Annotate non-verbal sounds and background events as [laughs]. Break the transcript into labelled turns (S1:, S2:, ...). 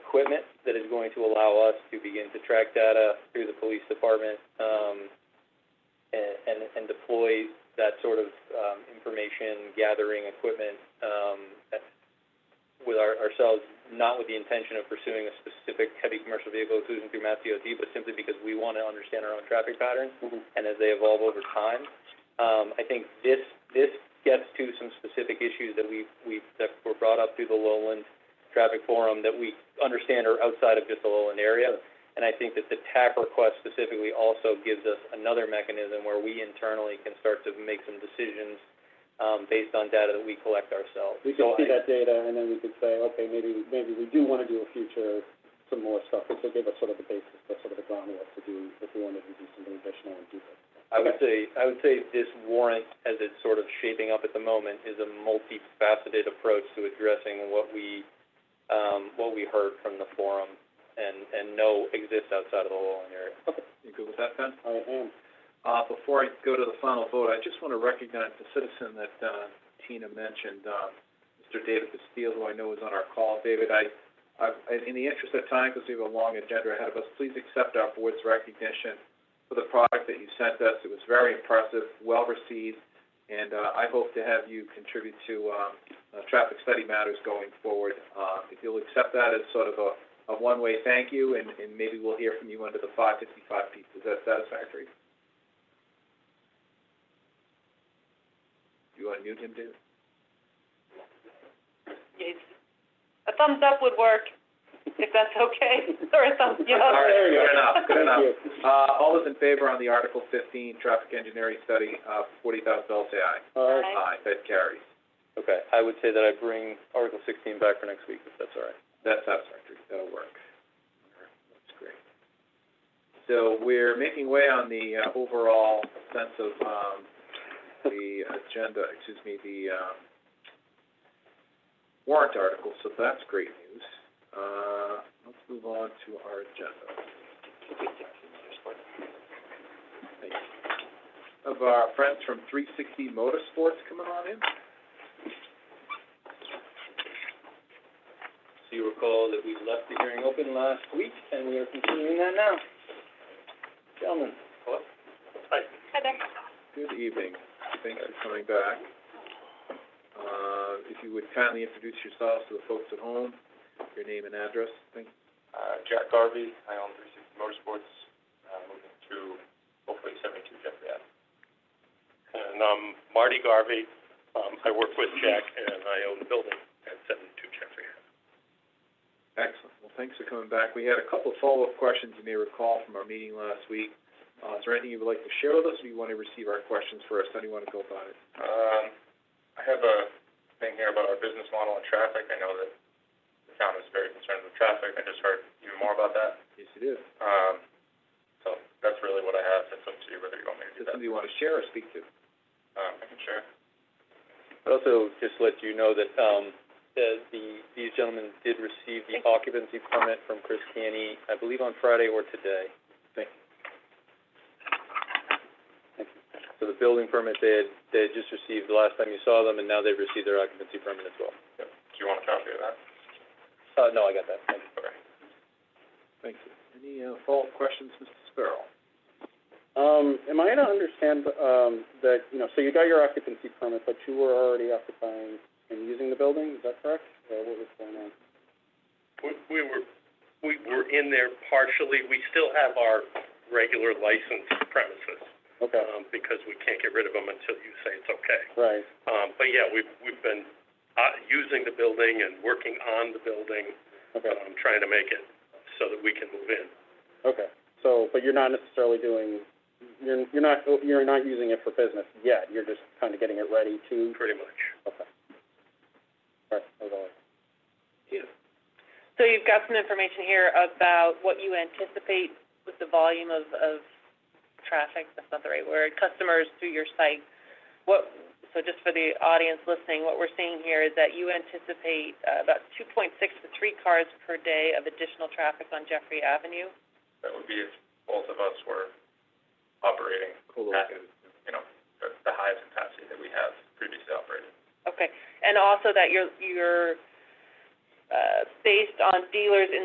S1: equipment that is going to allow us to begin to track data through the police department, um, and, and, and deploy that sort of, um, information gathering equipment, um, at- with our, ourselves, not with the intention of pursuing a specific heavy commercial vehicle exclusion through Mass DOT, but simply because we wanna understand our own traffic patterns and as they evolve over time. Um, I think this, this gets to some specific issues that we, we, that were brought up through the Lowland Traffic Forum that we understand are outside of just the Lowland area. And I think that the TAC request specifically also gives us another mechanism where we internally can start to make some decisions, um, based on data that we collect ourselves.
S2: We
S1: So
S2: could see
S1: I-
S2: that data, and then we could say, okay, maybe, maybe we do wanna do a future, some more stuff, this will give us sort of the basis, the sort of the groundwork to do, if we wanted to do something additional and do that.
S1: I would say, I would say this warrant, as it's sort of shaping up at the moment, is a multifaceted approach to addressing what we, um, what we heard from the forum and, and know exists outside of the Lowland area.
S3: You good with that, Ben?
S2: I am,
S3: Uh, before I go to the final vote, I just want to recognize the citizen that, uh, Tina mentioned, uh, Mr. David Castile, who I know is on our call. David, I, I, in the interest of time, because we have a long agenda ahead of us, please accept our board's recognition for the product that you sent us. It was very impressive, well-received, and, uh, I hope to have you contribute to, um, uh, traffic study matters going forward. Uh, if you'll accept that as sort of a, a one-way thank you, and, and maybe we'll hear from you under the five fifty-five piece. Is that satisfactory? Do you want to mute him, David?
S4: A thumbs up would work, if that's okay, [laughs] or a thumbs, you know.
S3: All right,
S2: There you go.
S3: good enough, good
S2: thank
S3: enough.
S2: you.
S3: Uh, all those in favor on the Article fifteen traffic engineering study, uh, forty thousand dollars, say aye.
S2: All right,
S4: Aye.
S3: Aye, that carries.
S1: Okay, I would say that I bring Article sixteen back for next week, if that's all right.
S3: That's satisfactory, that'll work. All right, That's great. So we're making way on the, uh, overall sense of, um, the agenda, excuse me, the, um, warrant article, so that's great news. Uh, let's move on to our agenda. Thank you. Of our friends from three sixty motorsports coming on in.
S1: So you recall that we left the hearing open last week, and we are continuing that now. Gentlemen.
S4: Hi there.
S3: Good evening. Thanks for coming back. Uh, if you would kindly introduce yourselves to the folks at home, your name and address, thank
S1: Uh, Jack Garvey, I own three sixty motorsports, uh, moving to hopefully seventy-two Jeffrey Ave.
S5: And I'm Marty Garvey. Um, I work with Jack and I own the building at seventy-two Jeffrey.
S3: Excellent. Well, thanks for coming back. We had a couple of follow-up questions you may recall from our meeting last week. Uh, is there anything you would like to share with us, or do you want to receive our questions first? How do you want to go about it?
S5: Um, I have a thing here about our business model and traffic. I know that the town is very concerned with traffic. I just heard even more about that.
S3: Yes, it is.
S5: Um, so that's really what I have. It's up to you whether you want me to do
S3: Is this
S5: that.
S3: something you want to share or speak to?
S5: Um, I can share.
S1: I'd also just let you know that, um, the, the, these gentlemen did receive the occupancy permit from Chris Canny, I believe on Friday or today.
S3: Thank
S1: you. So the building permit they had, they had just received the last time you saw them, and now they've received their occupancy permit as well.
S5: Do you want a copy of that?
S1: Uh, no, I got that, thank you.
S5: Okay.
S3: Thank you. Any, uh, follow-up questions, Mr. Sparrow?
S2: um, am I to understand, um, that, you know, so you got your occupancy permit, but you were already occupying and using the building, is that correct? Or what was going on?
S5: We, we were, we were in there partially. We still have our regular licensed premises, um,
S2: Okay,
S5: because we can't get rid of them until you say it's okay.
S1: Uh,
S2: right,
S5: Um, but yeah, we've, we've been, uh, using the building and working on the building,
S2: okay.
S5: um, trying to make it so that we can move in.
S2: Okay, so, but you're not necessarily doing, you're, you're not, you're not using it for business yet, you're just kind of getting it ready to,
S5: Pretty much.
S2: okay. All right, that was all.
S3: Yeah.
S4: So you've got some information here about what you anticipate with the volume of, of traffic, that's not the right word, customers through your site. What, so just for the audience listening, what we're seeing here is that you anticipate uh, about two point six to three cars per day of additional traffic on Jeffrey Avenue.
S5: That would be if both of us were operating
S3: Co-located.
S5: the, the highest capacity that we have previously operated.
S4: Okay, and also that you're, you're, uh, based on dealers in